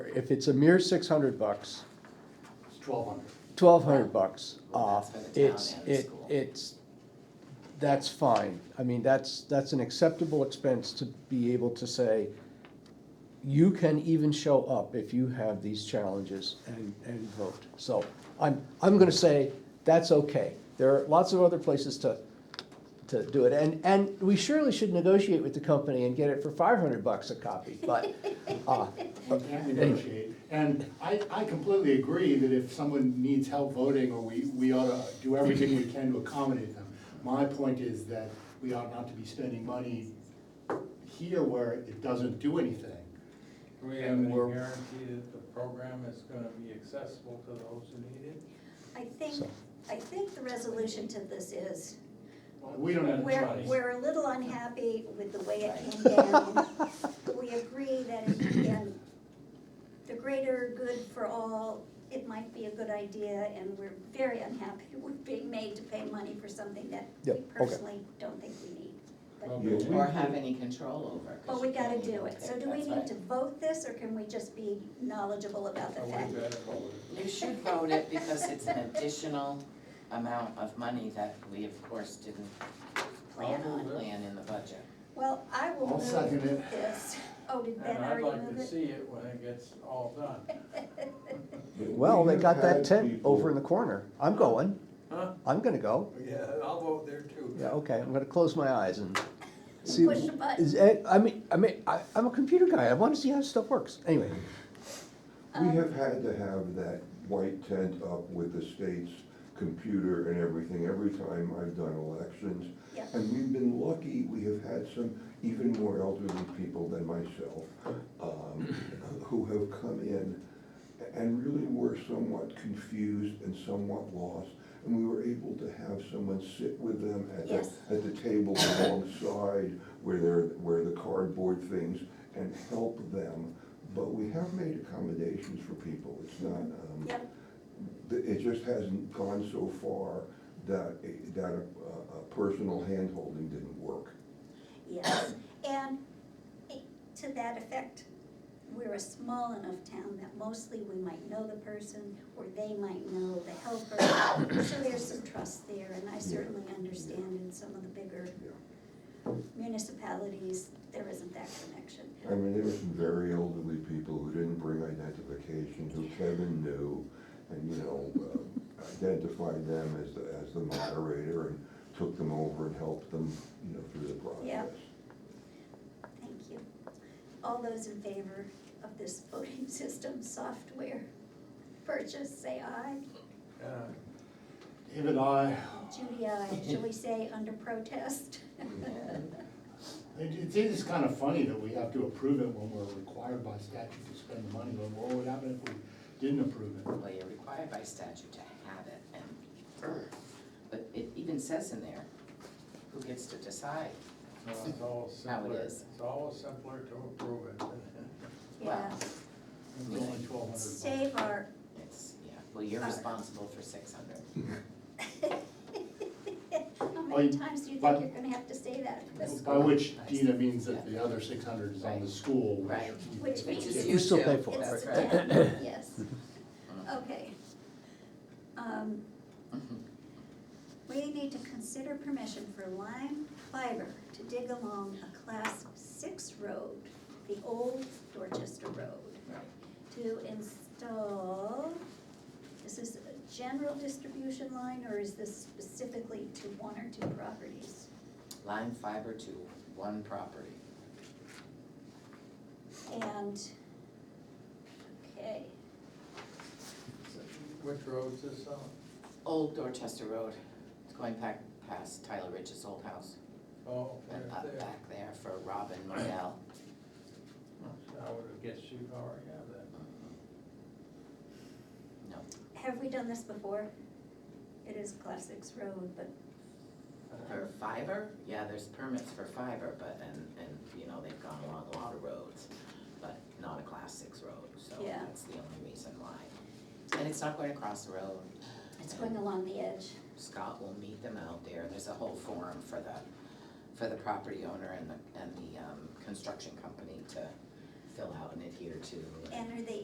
if it's a mere six hundred bucks, It's twelve hundred. twelve hundred bucks Well, off, that's for the town it's, and the it, school. it's, that's fine. I mean, that's, that's an acceptable expense to be able to say, you can even show up if you have these challenges and, and vote. So I'm, I'm gonna say, that's okay. There are lots of other places to, to do it. And, and we surely should negotiate with the company and get it for five hundred bucks a copy, but, uh, We can't negotiate. And I, I completely agree that if someone needs help voting, or we, we ought to do everything we can to accommodate them. My point is that we ought not to be spending money here where it doesn't do anything. Do we have And any we're- guarantee that the program is gonna be accessible to those who need it? I think, So. I think the resolution to this is, We don't have we're, choice. we're a little unhappy with the way it came down. We agree that in, in the greater good for all, it might be a good idea, and we're very unhappy we're being made to pay money for something that we Yep, okay. personally don't think we need. Well, But, but we- Or have any control over. 'cause but we you can't gotta even do it, so pick, do we that's need right. to vote this, or can we just be knowledgeable about the Are fact? we better for it? You should vote it because it's an additional amount of money that we of course didn't Plan on. plan in the budget. Well, I will I'll second move it. this, oh, did Ben And I'd already like move to it? see it when it gets all done. well, they got that tent over in the. the corner. I'm going, Huh? I'm gonna go. Yeah, I'll vote there too. Yeah, okay, I'm gonna close my eyes and see. Push the button. Is, eh, I mean, I mean, I, I'm a computer guy, I wanna see how stuff works, anyway. We have had to have that white tent up with the state's computer and everything every time I've done elections. Yeah. And we've been lucky, we have had some even more elderly people than myself, um, who have come in and really were somewhat confused and somewhat lost. And we were able to have someone sit with them at the, Yes. at the table alongside where they're, where the cardboard things and help them. But we have made accommodations for people, it's not, um, Yep. th- it just hasn't gone so far that, a- that a, a personal handholding didn't work. Yes, and i- to that effect, we're a small enough town that mostly we might know the person, or they might know the helper, so there's some trust there, and I certainly understand in some of the bigger Yeah. municipalities, there isn't that connection. I mean, there were some very elderly people who didn't bring identification, who Kevin knew, and, you know, uh, identified them as the, as the moderator and took them over and helped them, you know, through the Yeah. process. Thank you. All those in favor of this voting system software purchase, say aye. Uh, David, I, Judy, aye. Shall we say under protest? it, it is kind of funny that we have to approve it when we're required by statute to spend the money, but what would happen if we didn't approve it? Well, you're required by statute to have it and, but it even says in there, who gets to decide? So it's all How it simpler, is. it's all simpler to approve it. Yeah, Wow. It's only twelve hundred. save our, It's, yeah, well, you're responsible for six hundred. how many times do you think you're gonna have to say that? By which Dina means that the other six hundred is on the school, which. Right. Which means is We still you pay too. for it, It's That's right? right. ten, yes. Okay. Um, Mm-hmm. We need to consider permission for Lime Fiber to dig along a class six road, the old Dorchester Road, to install, is this a general distribution line or is this specifically to one or two properties? Line fiber to one property. And, okay, Which road's this on? Old Dorchester Road, it's going back past Tyler Rich's old house, Oh, and right up there. back there for Robin Modell. uh, I would guess you already have that. No, have we done this before? It is class six road, but for fiber, yeah, there's permits for fiber, but, and, and, you know, they've gone along a lot of roads, but not a class six road, so Yeah. that's the only reason why. And it's not going across the road, it's going along the edge. Scott will meet them out there, and there's a whole forum for the, for the property owner and the, and the, um, construction company to fill out and adhere to. And are they